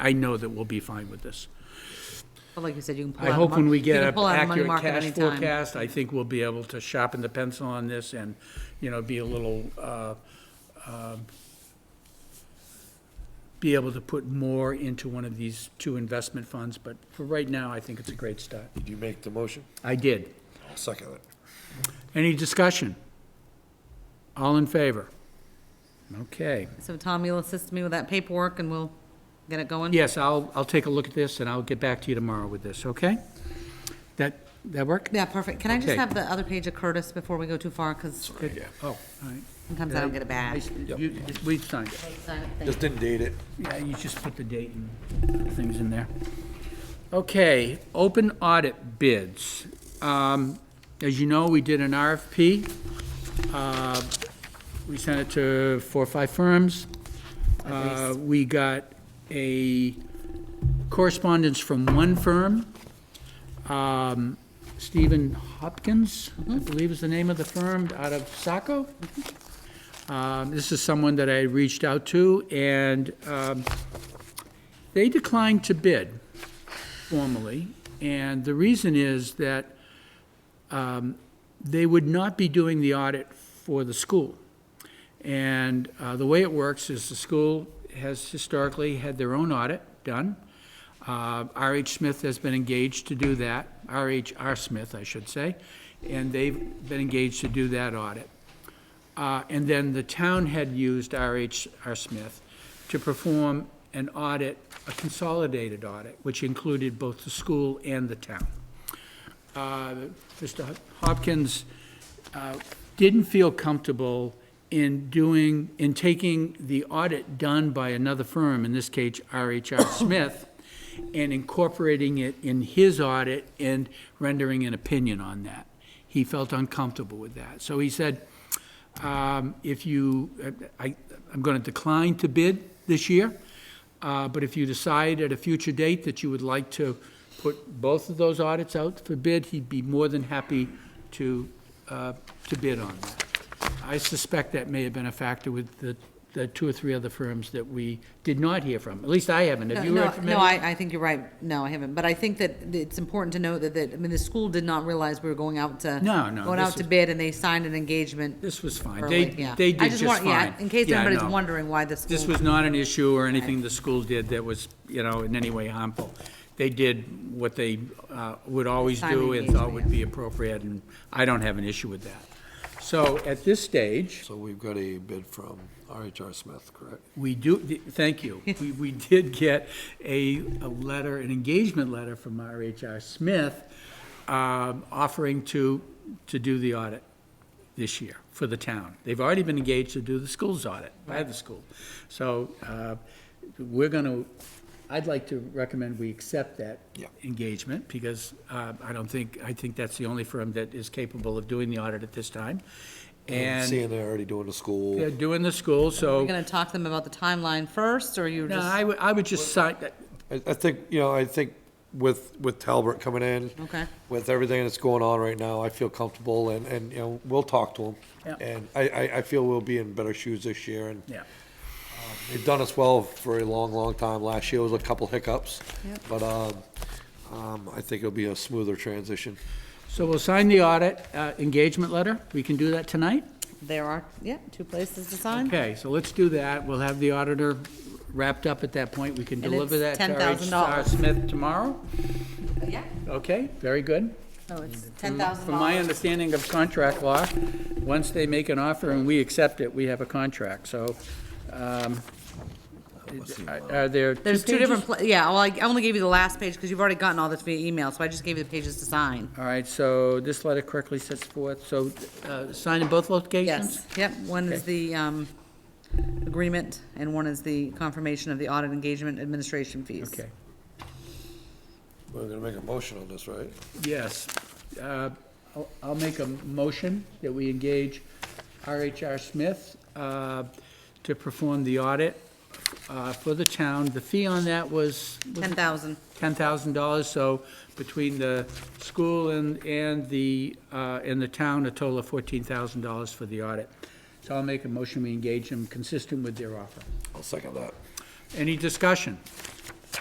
I know that we'll be fine with this. But like you said, you can pull out. I of hope mon- when we you get can an pull out of money accurate market cash anytime. forecast, I think we'll be able to sharpen the pencil on this and, you know, be a little, uh, um, be able to put more into one of these two investment funds, but for right now, I think it's a great start. Did you make the motion? I did. I'll second it. Any discussion? All in favor? Okay. So Tom, you'll assist me with that paperwork and we'll get it going? Yes, I'll, I'll take a look at this and I'll get back to you tomorrow with this, okay? That, that work? Yeah, perfect. Can I just Okay. have the other page of Curtis before we go too far? Because Good. Oh, all right. sometimes I don't get it back. You- We signed it. Sign it, thank Just didn't date it. Yeah, you just put the date and things in there. Okay, open audit bids. Um, As you know, we did an RFP. Uh, We sent it to four or five firms. Uh, We got a correspondence from one firm. Um, Stephen Hopkins, I believe is the name of the firm, out of Saco. Um, This is someone that I reached out to, and um, they declined to bid formally. And the reason is that um, they would not be doing the audit for the school. And uh, the way it works is the school has historically had their own audit done. Uh, R.H. Smith has been engaged to do that, R.H.R. Smith, I should say, and they've been engaged to do that audit. Uh, And then the town had used RHR Smith to perform an audit, a consolidated audit, which included both the school and the town. Uh, Mr. Hopkins uh, didn't feel comfortable in doing, in taking the audit done by another firm, in this case RHR Smith, and incorporating it in his audit and rendering an opinion on that. He felt uncomfortable with that. So he said, um, If you, I, I'm going to decline to bid this year, uh, but if you decide at a future date that you would like to put both of those audits out for bid, he'd be more than happy to, uh, to bid on that. I suspect that may have been a factor with the, the two or three other firms that we did not hear from. At least I haven't. Have No, you heard no, from any? no, I, I think you're right. No, I haven't. But I think that it's important to note that, that, I mean, the school did not realize we were going out to. No, no, Going this out to is- bid and they signed an engagement. This was fine. They, early, yeah. they I did just want- fine. yeah, In case Yeah, anybody's no. wondering why the school. This was not an issue or anything the school did that was, you know, in any way harmful. They did what they uh, would always Time do and thought engagement, would be appropriate, and I don't have an issue with that. So at this stage, So we've got a bid from RHR Smith, correct? we do, thank you. We, we did get a, a letter, an engagement letter from RHR Smith um, offering to, to do the audit this year for the town. They've already been engaged to do the school's audit by the school. So uh, we're going to, I'd like to recommend we accept that Yeah. engagement because uh, I don't think, I think that's the only firm that is capable of doing the audit at this time. And Seeing they're already doing the school. they're doing the school, so. You're gonna talk to them about the timeline first, or you're No, just? I would, I would just sign, I, I think, you know, I think with, with Talbert coming in. Okay. With everything that's going on right now, I feel comfortable and, and, you know, we'll talk to Yeah. them. And I, I, I feel we'll be in better shoes this year and yeah. they've done us well for a long, long time. Last year was a couple hiccups. Yep. But, um, um, I think it'll be a smoother transition. So we'll sign the audit uh, engagement letter. We can do that tonight? There are, yeah, two places to sign. Okay, so let's do that. We'll have the auditor wrapped up at that point. We can And deliver that it's to R.H. $10,000. Smith tomorrow. Yeah, Okay, very good. no, Oh, it's ten thousand Mm. From my dollars. understanding of contract law, once they make an offer and we accept it, we have a contract, so. um, Are there two There's two different, pages? pla- yeah, well, I I only gave you the last page, because you've already gotten all this via email, so I just gave you the pages to sign. All right, so this letter correctly sets forth, so uh, sign in both locations? Yes, yep, one is the, um, agreement, and one is the confirmation of the audit engagement administration fees. Okay. We're gonna make a motion on this, right? Yes. Uh, I'll I'll make a motion that we engage RHR Smith uh, to perform the audit uh, for the town. The fee on that was was Ten thousand, $10,000, so between the school and, and the, uh, and the town, a total of $14,000 for the audit. So I'll make a motion, we engage them consistent with their offer. I'll second that. Any discussion?